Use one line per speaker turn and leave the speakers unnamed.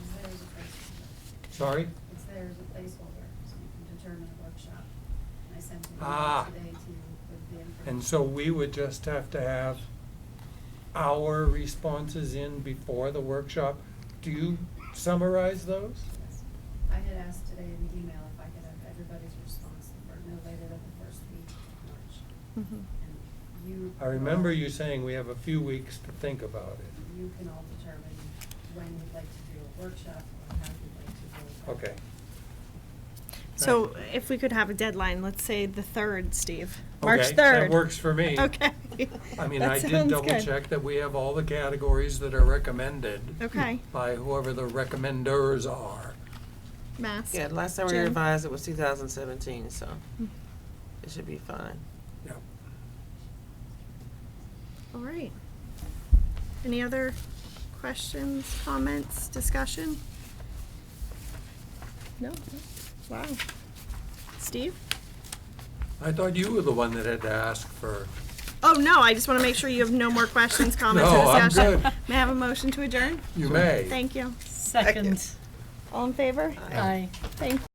Sorry?
It's there as a placeholder, so you can determine a workshop. And I sent an
Ah.
email today to you with the information.
And so we would just have to have our responses in before the workshop. Do you summarize those?
Yes. I had asked today in the email if I could have everybody's response for no later than the first week of March.
Mhm.
And you.
I remember you saying we have a few weeks to think about it.
You can all determine when you'd like to do a workshop or how you'd like to do it.
Okay.
So
Right.
if we could have a deadline, let's say the third, Steve,
Okay, that
March third.
works for me.
Okay.
I mean,
That
I did
sounds
double
good.
check that we have all the categories that are recommended
Okay,
by whoever the recommenders are.
mask.
Yeah, last time we
Jen?
revised it was two thousand seventeen, so
Mm-hmm.
it should be fine.
Yep.
All right. Any other questions, comments, discussion? No? Wow. Steve?
I thought you were the one that had to ask for,
Oh, no, I just want to make sure you have no more questions, comments,
No,
or
I'm
discussion.
good.
May I have a motion to adjourn?
you may.
Thank you.
Second.
All in favor?
Aye.
Thank